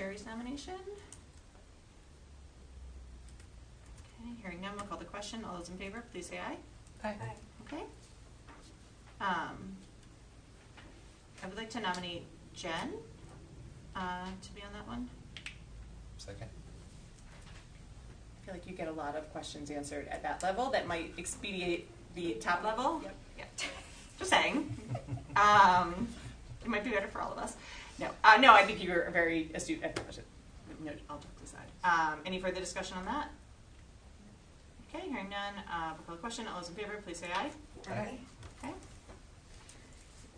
Teacher's nomination? Okay, hearing none, we'll call the question. All those in favor, please say aye. Aye. Okay. Um, I would like to nominate Jen, uh, to be on that one. Second? I feel like you get a lot of questions answered at that level that might expedite the top level. Yep. Yeah. Just saying. Um, it might be better for all of us. No, uh, no, I think you were very astute. at the question. No, I'll talk aside. Um, any further discussion on that? Okay, hearing none, uh, we'll call the question. All those in favor, please say aye. Aye. Okay.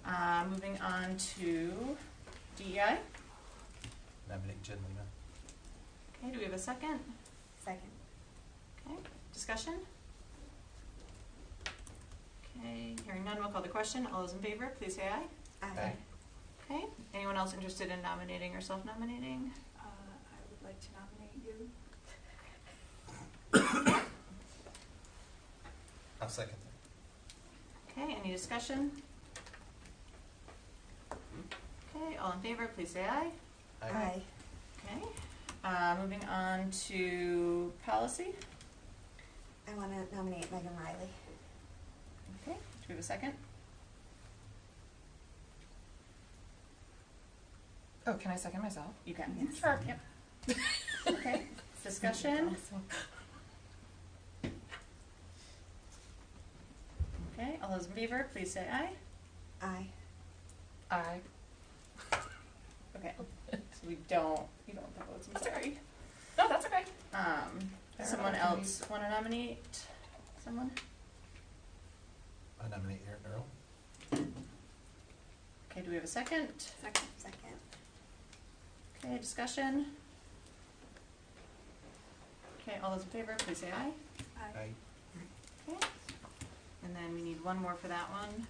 Uh, moving on to E DEI. Nominate Jen Lima. Okay, do we have a second? Second. Okay, discussion? Okay, hearing none, we'll call the question. All those in favor, please say aye. Aye. Okay, anyone else interested in nominating or self-nominating? Uh, I would like to nominate you. I'll second that. Okay, any discussion? Okay, all in favor, please say aye. Aye. Okay, uh, moving on to policy. I want to nominate Megan Riley. Okay, do we have a second? Oh, can I second myself? You can. Sure. Yep. Okay, discussion? Okay, all those in favor, please say aye. Aye. Aye. Okay, so we don't, you don't have votes, I'm sorry. No, that's okay. Um, Fair someone enough, can we- else wanna nominate someone? I nominate Aaron Earl. Okay, do we have a second? Second. Second. Okay, discussion? Okay, all those in favor, please say aye. Aye. Okay, and then we need one more for that one.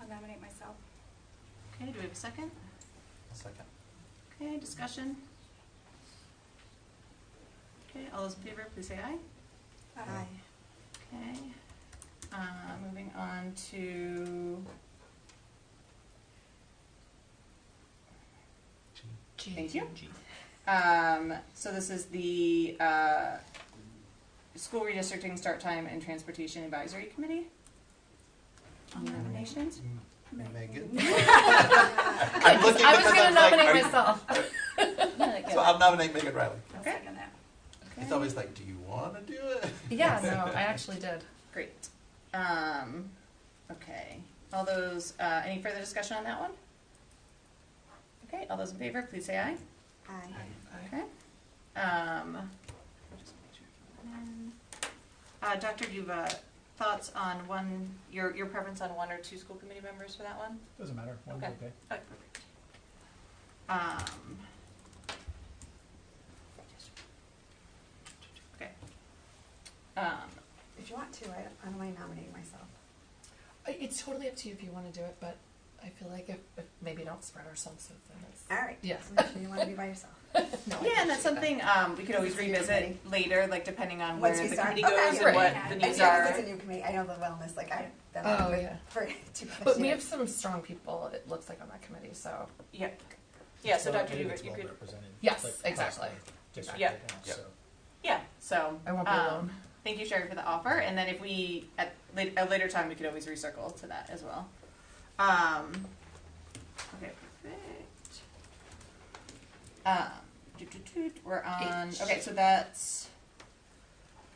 I'll nominate myself. Okay, do we have a second? I'll second. Okay, discussion? Okay, all those in favor, please say aye. Uh, Aye. Okay, uh, moving on to G. Thank you. Um, so this is the, uh, school redistricting start time and transportation advisory committee. On nominations. M- Mm, Megan? I I'm looking I was because gonna I'm like, nominate I'm- myself. So I'll nominate Megan Riley. I'll Okay. second that. It's always like, do you wanna do it? Yeah, no, I actually did. Great. Um, okay, all those, uh, any further discussion on that one? Okay, all those in favor, please say aye. Aye. Okay. Um, uh, Dr. Duva, thoughts on one, your, your preference on one or two school committee members for that one? Doesn't matter, one's Okay. okay. Okay, Oh, perfect. Um. Okay. Um, If you want to, I, I don't mind nominating myself. I- It's totally up to you if you want to do it, but I feel like if, if maybe don't spread ourselves so thin. All right. Yes. So make sure you want to be by yourself. It's, no, I yeah, and that's appreciate something, um, we could always It's a new revisit committee. later, like depending on where Once we the start- committee okay, goes and right. Yeah. what the And And needs yeah, are. because it's a new committee. I know the wellness, like I've done Oh, that with- yeah. for two that. plus But we have years. some strong people, it looks like, on that committee, so. Yeah, yeah, so Well, I Dr. think Duva, it's you well could, represented, Yes, like, exactly. across the district Yeah. right now, Yeah. so. yeah, so. I won't be um, alone. Thank you, Sherry, for the offer, and then if we, at late, a later time, we could always recircle to that as well. Um, okay, perfect. Um, doo, doo, doo, doo, we're on, H. okay, so that's,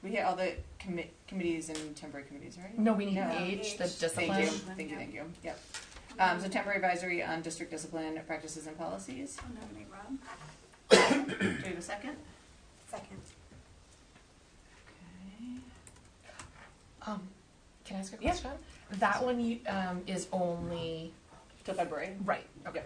we hit all the commi- committees and temporary committees, right? No, we need No. age, the Age. discipline. Thank you, Discipline, thank you, yeah. thank you, yep. Um, so temporary advisory on district discipline practices and policies. I'll nominate Rob. Do we have a second? Second. Okay. Um, can I ask a Yeah. question? That one you, um, is only, Till February. right, okay.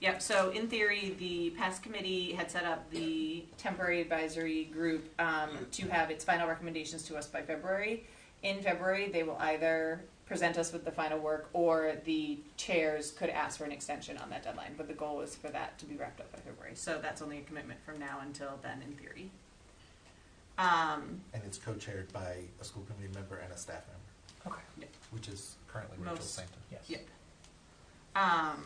Yep, so in theory, the past committee had set up the temporary advisory group um, to have its final recommendations to us by February. In February, they will either present us with the final work or the chairs could ask for an extension on that deadline, but the goal is for that to be wrapped up by February. So that's only a commitment from now until then, in theory. Um, And it's co-chaired by a school committee member and a staff member, Okay. which is currently Rachel Most- Santon. Yes. yeah. Um,